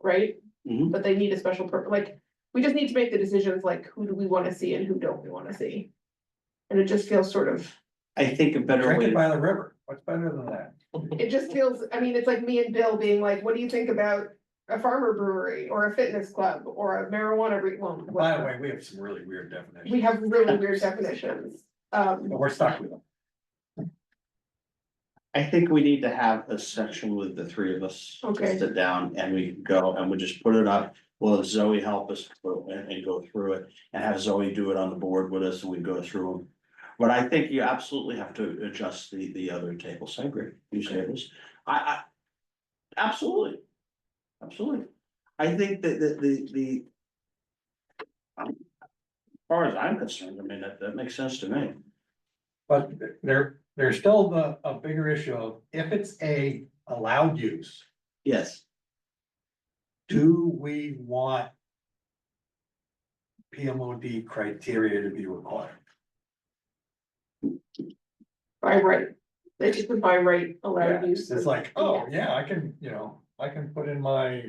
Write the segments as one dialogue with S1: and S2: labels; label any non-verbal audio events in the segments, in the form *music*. S1: right?
S2: Mhm.
S1: But they need a special per, like, we just need to make the decisions like, who do we wanna see and who don't we wanna see? And it just feels sort of,
S2: I think a better
S3: Drink
S2: way,
S3: it by the river, what's better than that?
S1: it just feels, I mean, it's like me and Bill being like, what do you think about? A farmer brewery or a fitness club or a marijuana re- well,
S3: By
S1: what-
S3: the way, we have some really weird definitions,
S1: we have really weird definitions. Um,
S3: but we're stuck with them.
S2: I think we need to have a section with the three of us.
S1: Okay.
S2: Sit down and we can go and we just put it up, we'll have Zoe help us go and, and go through it, and have Zoe do it on the board with us, and we go through them. But I think you absolutely have to adjust the, the other tables, I agree, you say this, I, I. Absolutely. Absolutely. I think that the, the, the. I'm- As far as I'm concerned, I mean, that, that makes sense to me.
S3: But there, there's still the, a bigger issue of if it's a allowed use,
S2: Yes.
S3: do we want? PMOD criteria to be required?
S1: by right, they just would by right allowed
S3: Yeah,
S1: use.
S3: It's
S1: of
S3: like, oh, yeah, I can, you know, I can put in my,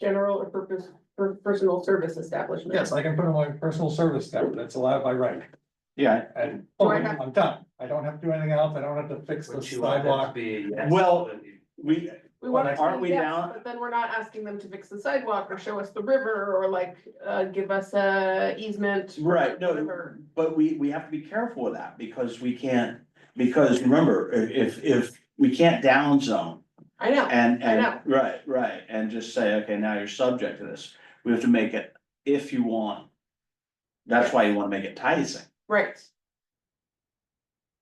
S1: General or purpose, per- personal service establishment.
S3: yes, I can put in my personal service that, that's allowed by right,
S2: Yeah.
S3: and
S1: Do
S3: oh,
S1: I have-
S3: I'm done. I don't have to do anything else, I don't have to fix the
S4: Would you want that to
S3: sidewalk.
S4: be? a yes?
S2: Well, We,
S1: We want
S3: Well,
S1: it
S2: aren't
S1: to be
S2: we
S1: yes,
S2: now-
S1: but then we're not asking them to fix the sidewalk or show us the river or like, uh, give us a easement. or
S2: Right, no,
S1: whatever.
S2: but we, we have to be careful of that, because we can't, because remember, i- if, if, we can't down zone.
S1: I know,
S2: And,
S1: I
S2: and,
S1: know.
S2: right, right, and just say, okay, now you're subject to this, we have to make it if you want. That's why you wanna make it enticing,
S1: right,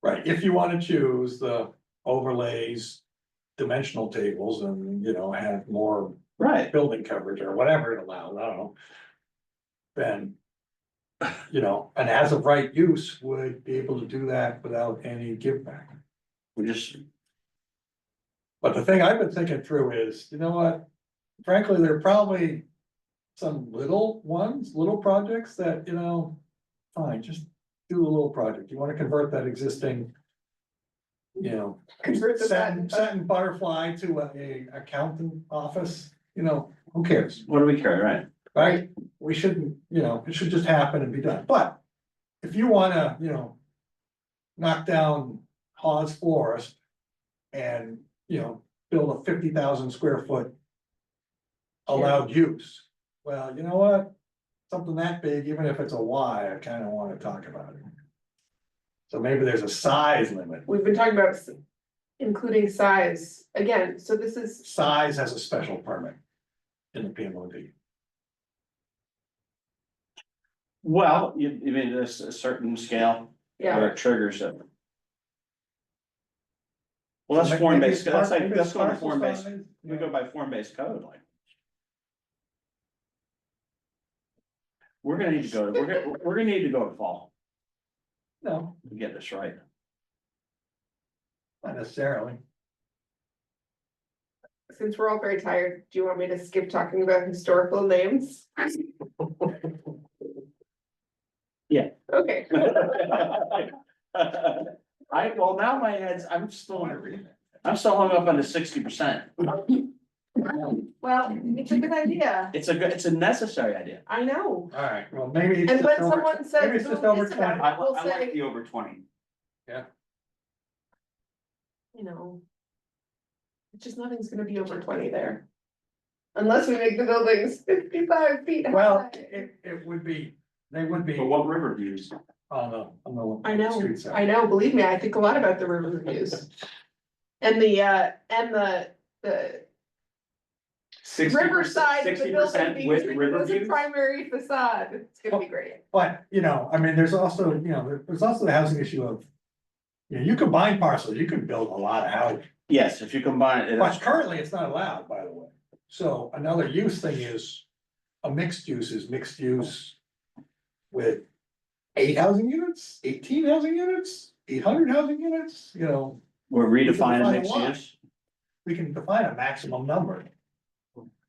S3: Right, if you wanna choose the overlays, dimensional tables and, you know, have more
S2: right,
S3: building coverage or whatever it allows, I don't know. Then, you know, an as of right use would be able to do that without any give back.
S2: we just,
S3: But the thing I've been thinking through is, you know what? Frankly, there are probably some little ones, little projects that, you know, fine, just do a little project. You wanna convert that existing, you know,
S1: convert the
S3: satin,
S1: side,
S3: satin butterfly to a accountant office, you know, who cares,
S2: what do we care, right?
S3: right? We shouldn't, you know, it should just happen and be done, but if you wanna, you know. Knock down Hawes Forest and, you know, build a fifty thousand square foot. Allowed use, well, you know what? Something that big, even if it's a Y, I kinda wanna talk about it. So maybe there's a size limit,
S1: we've been talking about s- including size, again, so this is,
S3: size has a special permit in the PMOD.
S2: Well, you, you mean there's a certain scale
S1: yeah,
S2: where it triggers it. Well, that's
S3: Maybe
S2: form based,
S3: it's
S2: that's
S3: par-
S2: like,
S3: maybe
S2: that's
S3: it's
S2: going to
S3: parcel
S2: form based,
S3: size,
S2: we go by form based code, like. We're gonna need to go, we're gonna, we're gonna need to go to fall
S3: No,
S2: to get this right. *laughs*
S3: not necessarily.
S1: since we're all very tired, do you want me to skip talking about historical
S3: *laughs*
S1: names?
S2: Yeah.
S1: Okay,
S2: I, well, now my head's, I'm still, I'm still hung up on the sixty percent.
S1: well, it's a good idea,
S2: It's a good, it's a necessary idea.
S1: I know,
S3: Alright, well, maybe. it's
S1: and when
S3: just over-
S1: someone says.
S3: Maybe it's just
S1: "Oh,
S3: over
S1: this about it,"
S3: twenty.
S2: I,
S1: we'll
S2: I like
S1: say,
S2: the over twenty.
S1: you know. It's just nothing's gonna be over twenty there. Unless we make the buildings fifty-five feet high.
S3: Well, it, it would be, they would be
S2: But
S3: on
S2: what river views?
S3: the, on the.
S1: I know,
S3: street side.
S1: I know, believe me, I think a lot about the river reviews. And the, uh, and the, the riverside, of the
S2: Sixty
S1: building
S2: percent
S1: being
S2: with
S1: treated
S2: river
S1: as a
S2: views?
S1: primary facade, it's gonna be great.
S3: But, you know, I mean, there's also, you know, there- there's also the housing issue of. You know, you combine parcels, you can build a lot of houses,
S2: Yes, if you combine it,
S3: but
S2: it's-
S3: currently it's not allowed, by the way. So another use thing is, a mixed use is mixed use. With eight housing units, eighteen housing units, eight hundred housing units, you know.
S2: we're
S3: define
S2: redefining
S3: a
S2: mixed
S3: lot.
S2: use.
S3: we can define a maximum number.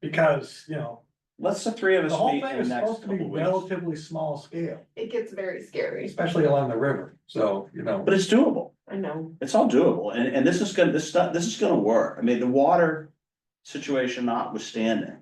S3: Because, you know,
S2: Let's the three of
S3: the
S2: us
S3: whole
S2: meet
S3: thing
S2: in the
S3: is
S2: next
S3: supposed to be
S2: couple weeks.
S3: relatively small scale,
S1: It gets very scary,
S3: especially along the river, so, you know.
S2: But it's doable.
S1: I know,
S2: It's all doable. And, and this is gonna, this stuff, this is gonna work. I mean, the water situation notwithstanding.